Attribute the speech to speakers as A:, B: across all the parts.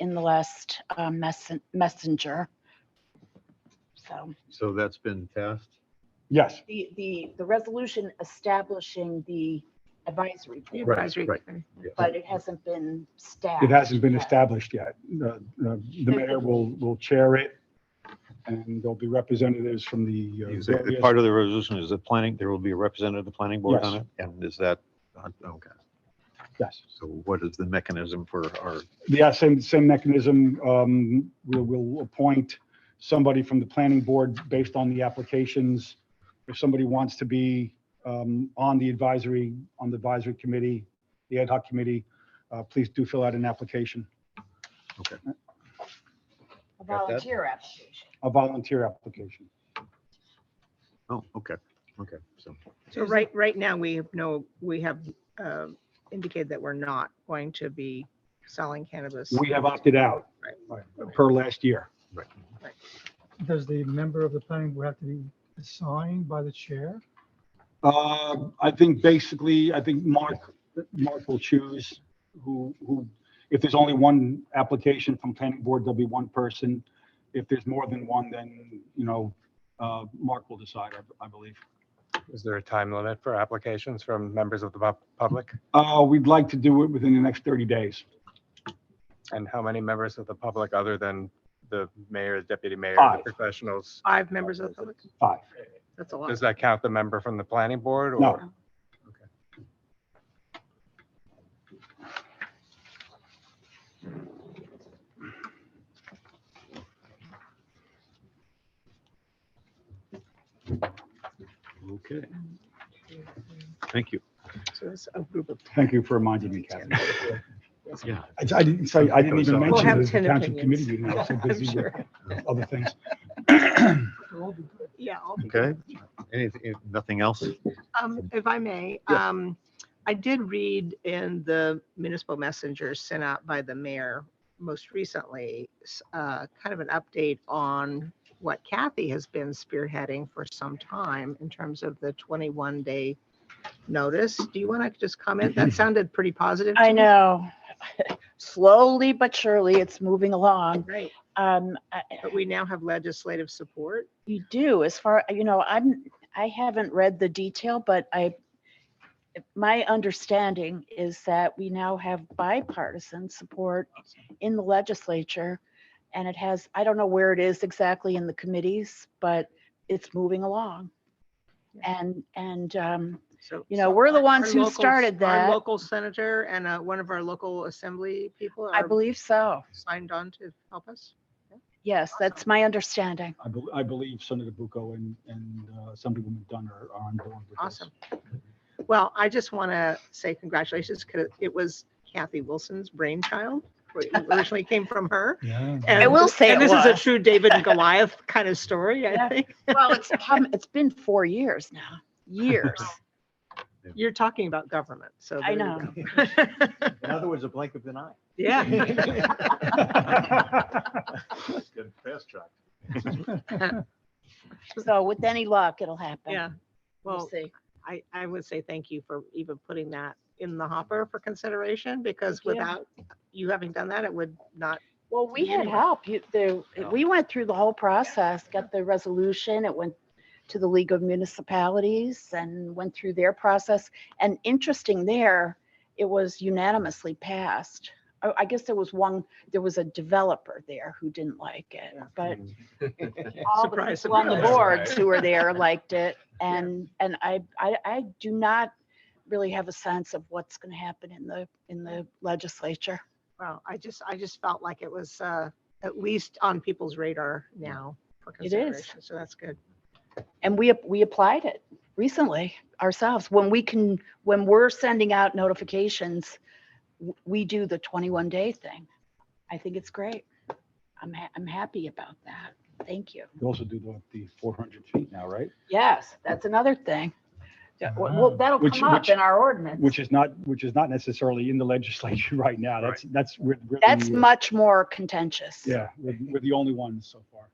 A: in the last um, messen- messenger. So
B: So that's been passed?
C: Yes,
A: the, the, the resolution establishing the advisory
D: The
A: board,
B: Right,
D: advisory
B: right.
D: committee.
A: but it hasn't been staffed.
C: it hasn't been
A: yet.
C: established yet. The the- the mayor will, will chair it, and there'll be representatives from the. uh,
B: Is it-
C: various-
B: Part of the resolution is the planning, there will be a representative of the planning board on
C: Yes.
B: it? And is that, uh, okay,
C: Yes,
B: so what is the mechanism for our,
C: yeah, same, same mechanism. Um, We'll, we'll appoint somebody from the planning board based on the applications. If somebody wants to be um, on the advisory, on the advisory committee, the ad hoc committee, uh, please do fill out an application,
A: A
B: that?
A: volunteer application.
C: a volunteer application.
B: oh, okay, okay, so.
D: So right, right now, we have no, we have uh, indicated that we're not going to be selling cannabis.
C: We have opted out per last year.
B: right.
E: Does the member of the planning board have to be assigned by the chair?
C: Uh, I think basically, I think Mark, Mark will choose who, who, if there's only one application from planning board, there'll be one person. If there's more than one, then, you know, uh, Mark will decide, I, I believe.
F: Is there a time limit for applications from members of the pub- public?
C: Uh, we'd like to do it within the next 30 days.
F: And how many members of the public other than the mayor, deputy mayor,
C: Five.
F: the professionals?
D: Five members of the public.
C: Five.
D: That's a lot.
F: Does that count the member from the planning board? or-
C: No.
B: Okay, thank you.
D: So it's a group of.
C: Thank you for reminding me, Kathy.
B: Yeah.
C: I, I didn't say, I didn't even
B: We'll
C: mention
D: have
C: it as the
D: 10
C: township committee
D: opinions.
C: meeting. I was so
D: I'm
C: busy with
D: sure.
C: other things.
D: Yeah. I'll be-
B: Okay, anything, nothing else?
D: Um, If I may,
B: Yes.
D: um, I did read in the municipal messenger sent out by the mayor most recently, s- uh, kind of an update on what Kathy has been spearheading for some time in terms of the 21-day notice. Do you want to just comment? That sounded pretty positive. to
A: I
D: me.
A: know. Slowly but surely, it's moving along.
D: Right,
A: Um, I-
D: but we now have legislative support.
A: You do, as far, you know, I'm, I haven't read the detail, but I, my understanding is that we now have bipartisan support in the legislature. And it has, I don't know where it is exactly in the committees, but it's moving along.
D: Yeah.
A: And, and, um,
D: So.
A: You know,
D: so
A: we're the
D: our-
A: ones
D: our
A: who
D: local-
A: started that.
D: Our local senator and uh, one of our local assembly people
A: I
D: are
A: believe so.
D: signed on to help us.
A: Yes, that's my understanding.
C: I bel- I believe Senator Bucco and, and uh, Assemblywoman Dunn are are on board with this.
D: Awesome. Well, I just want to say congratulations because it was Kathy Wilson's brainchild. It Originally came from her.
E: Yeah.
D: And-
A: I will say
D: And
A: it
D: this is a
A: was.
D: true David and Goliath kind of story, I
A: Yeah.
D: think.
A: Well, it's, come- it's been four years now, years.
D: You're talking about government, so.
A: I
D: there you
A: know.
D: go.
G: In other words, a blink of an eye.
D: Yeah.
G: Good fast track.
A: So with any luck, it'll happen.
D: Yeah.
A: We'll
D: Well,
A: see.
D: I, I would say thank you for even putting that in the hopper for consideration because
A: Thank you.
D: without you having done that, it would not.
A: Well, we had
D: Anyway.
A: help. You, the, we went through the whole process, got the resolution, it went to the League of Municipalities and went through their process. And interesting there, it was unanimously passed. I, I guess there was one, there was a developer there who didn't like it, but all the
D: Hmm. Surprise,
A: people on the
D: surprise.
A: boards who were there liked it. And, and I, I, I do not really have a sense of what's going to happen in the, in the legislature.
D: Well, I just, I just felt like it was uh, at least on people's radar now for
A: It is.
D: consideration. So that's good.
A: And we, ap- we applied it recently ourselves. When we can, when we're sending out notifications, w- we do the 21 day thing. I think it's great. I'm, ha- I'm happy about that. Thank you.
C: You also do the, the 400 feet now, right?
A: Yes, that's another thing. Yeah, Well,
E: Wow.
A: well, that'll
C: Ah, Which-
A: come up
C: which-
A: in our ordinance.
C: Which is not, which is not necessarily in the legislature right now. That's, that's, we're, we're the-
A: That's much more contentious.
C: Yeah, we're, we're the only ones so far.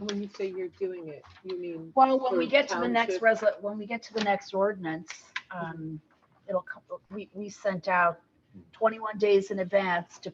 H: When you say you're doing it, you mean,
A: Well, when
H: For
A: we get to the next
H: township.
A: resol, when we get to the next ordinance, um, it'll, co- we, we sent out twenty-one days in advance to